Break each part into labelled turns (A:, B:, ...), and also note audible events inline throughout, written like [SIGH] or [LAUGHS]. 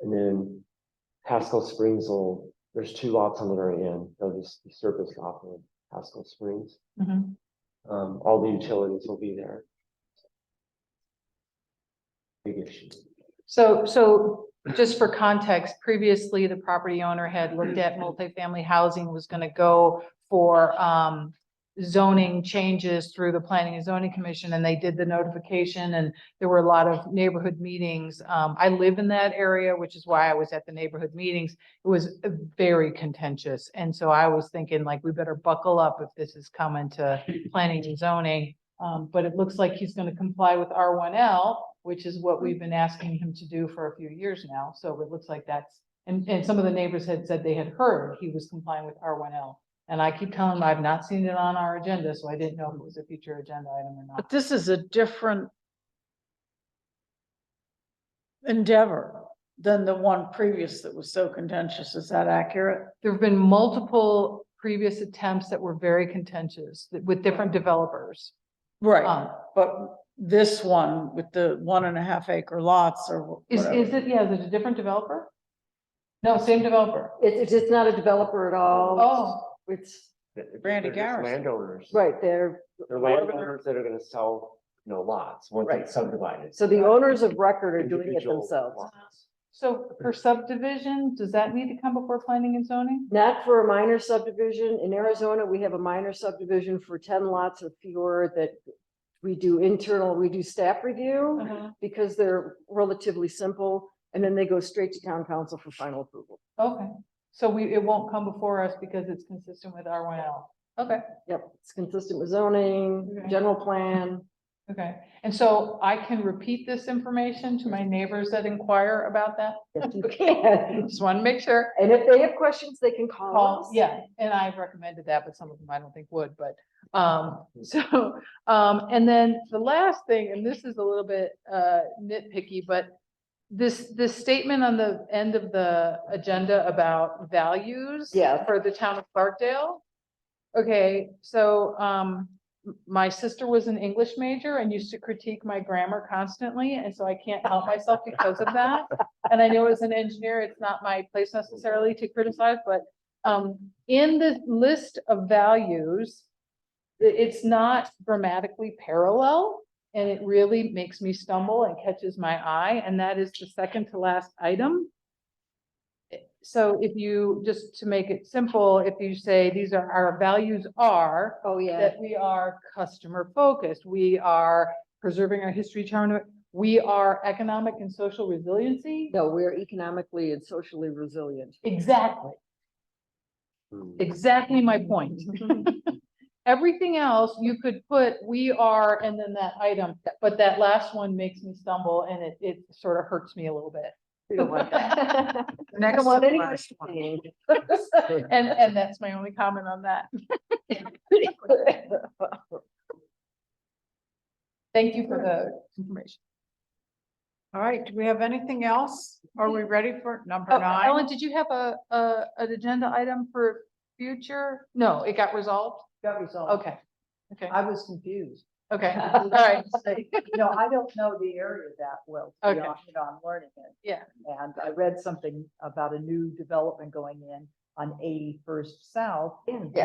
A: And then Haskell Springs will, there's two lots on the very end, they'll just be surfaced off of Haskell Springs.
B: Mhm.
A: Um, all the utilities will be there. Big issue.
B: So, so just for context, previously the property owner had looked at multifamily housing was gonna go for, um, zoning changes through the planning and zoning commission and they did the notification and there were a lot of neighborhood meetings. Um, I live in that area, which is why I was at the neighborhood meetings. It was uh, very contentious. And so I was thinking like, we better buckle up if this is coming to planning and zoning. Um, but it looks like he's gonna comply with R one L, which is what we've been asking him to do for a few years now. So it looks like that's, and, and some of the neighbors had said they had heard he was complying with R one L. And I keep telling them I've not seen it on our agenda, so I didn't know if it was a future agenda item or
C: But
B: not.
C: this is a different endeavor than the one previous that was so contentious. Is that accurate?
B: There have been multiple previous attempts that were very contentious th- with different developers.
C: Right,
B: Um,
C: Uh, but this one with the one and a half acre lots or
B: Is, is
C: whatever.
B: it, yeah, is it a different developer? No, same developer.
D: It's, it's not a developer at all.
B: Oh,
D: It's,
C: Randy
A: They're just
C: Garrison.
A: Landowners.
D: right, there.
A: They're landowners that are gonna sell, you know, lots, once
D: Right.
A: it's subdivided.
D: so the owners of record are doing it
A: Individual
D: themselves.
A: lots.
B: so for subdivision, does that need to come before planning and zoning?
D: Not for a minor subdivision. In Arizona, we have a minor subdivision for ten lots or fewer that we do internal, we do staff review because they're relatively simple. And then they go straight to town council for final approval.
B: Okay, so we, it won't come before us because it's consistent with R one L. Okay,
D: Yep, it's consistent with zoning,
B: Okay.
D: general
B: [LAUGHS]
D: plan.
B: okay. And so I can repeat this information to my neighbors that inquire about that?
D: Yes, you can.
B: Just want to make sure.
D: And if they have questions, they can call
B: Call,
D: us.
B: yeah, and I've recommended that, but some of them I don't think would, but, um, [LAUGHS] so, um, and then the last thing, and this is a little bit, uh, nitpicky, but this, this statement on the end of the agenda about values.
D: Yes.
B: For the town of Clarkdale. Okay, so, um, m- my sister was an English major and used to critique my grammar constantly, and so I can't help myself because of that. And I know as an engineer, it's not my place necessarily to criticize, but, um, in the list of values, i- it's not grammatically parallel, and it really makes me stumble and catches my eye, and that is the second to last item. So if you, just to make it simple, if you say these are, our values are,
D: Oh, yeah.
B: that we are customer focused, we are preserving our history, charm, we are economic and social resiliency.
D: No, we're economically and socially resilient.
B: Exactly,
A: Hmm.
B: exactly my
C: [LAUGHS]
B: point. Everything else, you could put, we are, and then that item, but that last one makes me stumble and it, it sort of hurts me a little bit.
D: We
E: [LAUGHS]
D: don't want that. I
C: Next
D: don't want
C: to
D: any
C: last one.
D: questioning.
B: [LAUGHS] And, and that's my only comment on that. Thank you for the information.
C: All right, do we have anything else? Are we ready for number
B: Oh,
C: nine?
B: Ellen, did you have a, a, an agenda item for future? No, it got resolved?
E: Got resolved.
B: Okay. Okay,
E: [LAUGHS] I was
D: [LAUGHS]
E: confused.
B: okay,
E: All [LAUGHS]
B: right.
E: No, I don't know the area that well. to be
B: Okay.
E: honest, You know, I'm learning it.
B: Yeah.
E: And I read something about a new development going in on eighty-first south. And,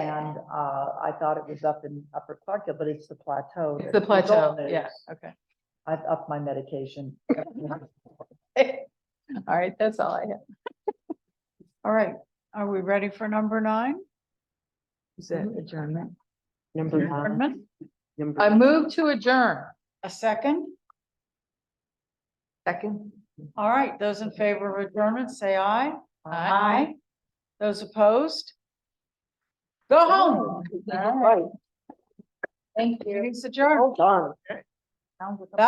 E: uh, I thought it was up in Upper Clarkdale, but it's the plateau.
B: It's
E: that
B: the
E: was old
B: plateau, yeah,
E: news.
B: okay. [LAUGHS]
E: I've upped my
D: [LAUGHS]
E: medication.
B: All right, that's all I have.
C: All right, are we ready for number nine?
E: Is that adjournment?
D: Number nine.
C: Pardon me?
D: number
B: I move to adjourn.
C: A second?
E: Second.
C: All right, those in favor of adjournment, say aye.
B: Aye.
C: Those opposed? Go home.
D: Right,
C: Thank you. It's adjourned.
D: hold on.